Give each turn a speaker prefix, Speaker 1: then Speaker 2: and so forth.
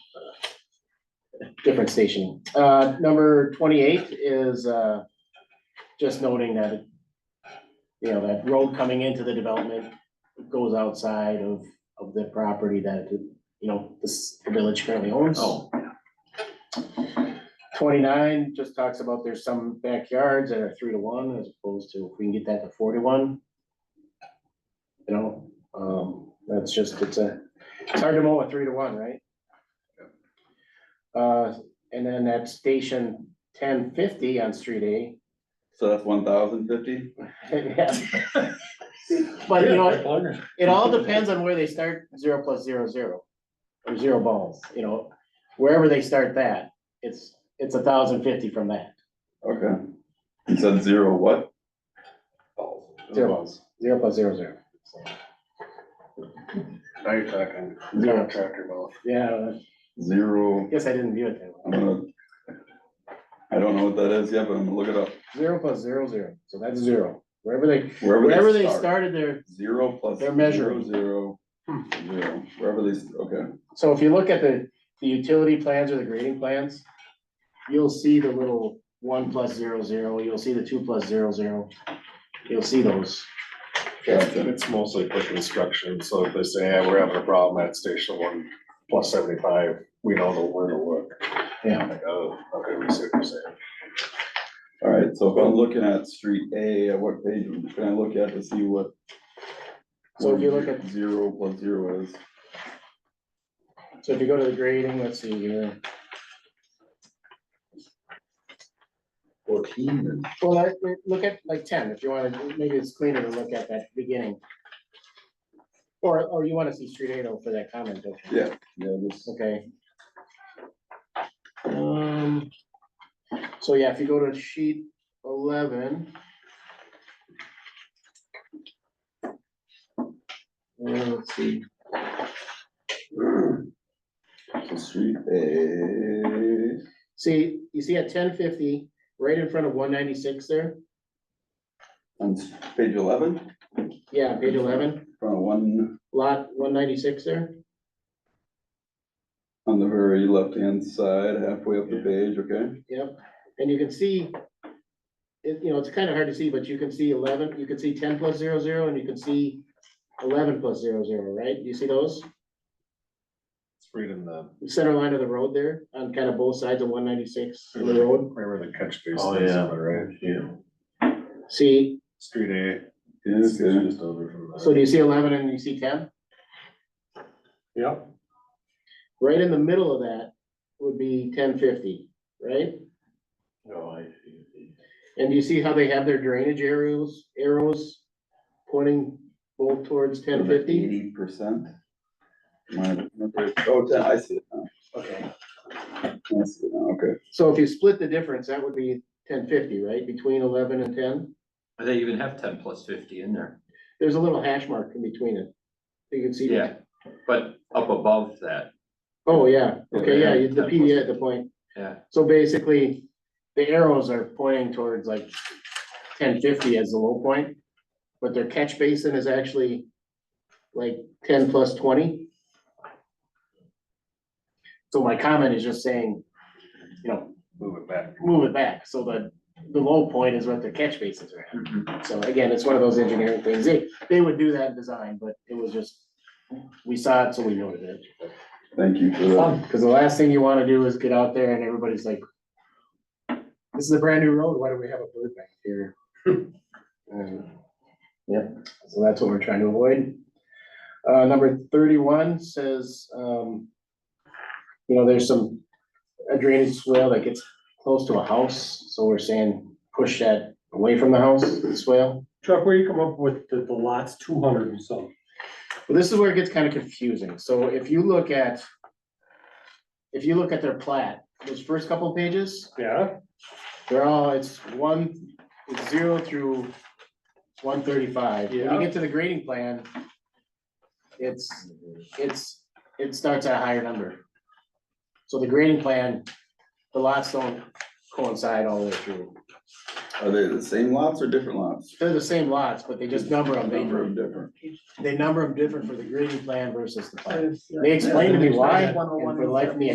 Speaker 1: different station. Uh, number twenty-eight is, uh, just noting that, it- you know, that road coming into the development goes outside of, of the property that, you know, this the village currently owns. Twenty-nine just talks about there's some backyards that are three to one as opposed to if we can get that to four to one. You know, um, that's just, it's a, it's hard to mow a three to one, right? Uh, and then at station ten fifty on street A.
Speaker 2: So that's one thousand fifty?
Speaker 1: yeah. But you know, it- it all depends on where they start zero plus zero zero. Or zero balls, you know, wherever they start that, it's, it's a thousand fifty from that,
Speaker 2: Okay. You said zero what?
Speaker 1: zero balls, zero plus zero zero. So,
Speaker 3: Now you're talking,
Speaker 1: Zero.
Speaker 3: zero tractor mouth.
Speaker 1: Yeah,
Speaker 2: Zero,
Speaker 1: I guess I didn't view it that
Speaker 2: I'm
Speaker 1: way.
Speaker 2: gonna. I don't know what that is yet, but I'm gonna look it up.
Speaker 1: Zero plus zero zero, so that's zero, wherever they,
Speaker 2: Wherever
Speaker 1: wherever they
Speaker 2: they start.
Speaker 1: started their,
Speaker 2: Zero plus.
Speaker 1: They're measuring.
Speaker 2: Zero,
Speaker 1: Hmm.
Speaker 2: zero, zero, wherever they, s- okay,
Speaker 1: so if you look at the, the utility plans or the grading plans. You'll see the little one plus zero zero, you'll see the two plus zero zero, you'll see those.
Speaker 2: gotcha,
Speaker 3: It's mostly for construction, so if they say, yeah, we're having a problem at station one plus seventy-five, we don't know where to look.
Speaker 1: Yeah.
Speaker 3: I'm like, oh, okay, we see what you're saying.
Speaker 2: alright, so if I'm looking at street A, at what page can I look at to see what?
Speaker 1: So if you look at-
Speaker 2: Zero plus zero is,
Speaker 1: So if you go to the grading, let's see here.
Speaker 2: fourteen,
Speaker 1: Well, I, I- look at like ten, if you wanna, maybe it's cleaner to look at that beginning. Or, or you wanna see street eight oh for that comment, don't you?
Speaker 2: yeah, yeah, this,
Speaker 1: Okay. Um, so yeah, if you go to sheet eleven. Uh, Let's see,
Speaker 2: so street A.
Speaker 1: see, you see at ten fifty, right in front of one ninety-six there,
Speaker 2: On s- page eleven, in
Speaker 1: yeah, page eleven,
Speaker 2: front of one,
Speaker 1: lot one ninety-six there.
Speaker 2: on the very left-hand side, halfway up the page, okay?
Speaker 1: Yep, and you can see, it, you know, it's kind of hard to see, but you can see eleven, you can see ten plus zero zero, and you can see eleven plus zero zero, right? You see those?
Speaker 3: It's reading the,
Speaker 1: The Center line of the road there, on kind of both sides of one ninety-six of
Speaker 4: Mm-hmm.
Speaker 1: the road.
Speaker 3: remember the catch basin?
Speaker 4: Oh, yeah.
Speaker 3: Right,
Speaker 4: Yeah.
Speaker 1: See,
Speaker 3: street A, it's
Speaker 2: Okay,
Speaker 3: just over from there.
Speaker 1: so do you see eleven and you see ten?
Speaker 3: Yep.
Speaker 1: Right in the middle of that would be ten fifty, right?
Speaker 4: Oh, I see.
Speaker 1: And do you see how they have their drainage arrows, arrows pointing both towards ten
Speaker 4: Mm-hmm.
Speaker 1: fifty?
Speaker 2: Eighty percent. Oh, ten, I see it now,
Speaker 1: Okay.
Speaker 2: I see it now, okay.
Speaker 1: So if you split the difference, that would be ten fifty, right, between eleven and ten?
Speaker 4: But They even have ten plus fifty in there.
Speaker 1: There's a little hash mark in between it. You can see. the-
Speaker 4: Yeah, but up above that,
Speaker 1: Oh, yeah, okay, yeah, you- the
Speaker 4: Yeah.
Speaker 1: PD at the point.
Speaker 4: yeah,
Speaker 1: So basically, the arrows are pointing towards like ten fifty as the low point. But their catch basin is actually like ten plus twenty. So my comment is just saying, you know,
Speaker 3: Move it back.
Speaker 1: move it back, so that the low point is what their catch bases are at.
Speaker 4: Mhm.
Speaker 1: So again, it's one of those engineering things. They, they would do that design, but it was just, we saw it, so we noted it.
Speaker 2: Thank you for that.
Speaker 1: Cause the last thing you wanna do is get out there and everybody's like, this is a brand new road, why do we have a bird back here? Um, Yep, so that's what we're trying to avoid. Uh, number thirty-one says, um, you know, there's some a drainage swale that gets close to a house, so we're saying push that away from the house, the swale.
Speaker 5: Chuck, where you come up with the, the lots two hundred and some?
Speaker 1: Well, this is where it gets kind of confusing. So if you look at, if you look at their plat, those first couple pages,
Speaker 5: Yeah,
Speaker 1: they're all, it's one, it's zero through one thirty-five. When you
Speaker 5: Yeah.
Speaker 1: get to the grading plan, it's, it's, it starts at a higher number. So the grading plan, the lots don't coincide all the way through.
Speaker 2: Are they the same lots or different lots?
Speaker 1: They're the same lots, but they just number them,
Speaker 2: Number of
Speaker 1: they,
Speaker 2: different,
Speaker 1: uh, they number them different for the grading plan versus the plat. They explained to me why, and for the life of me,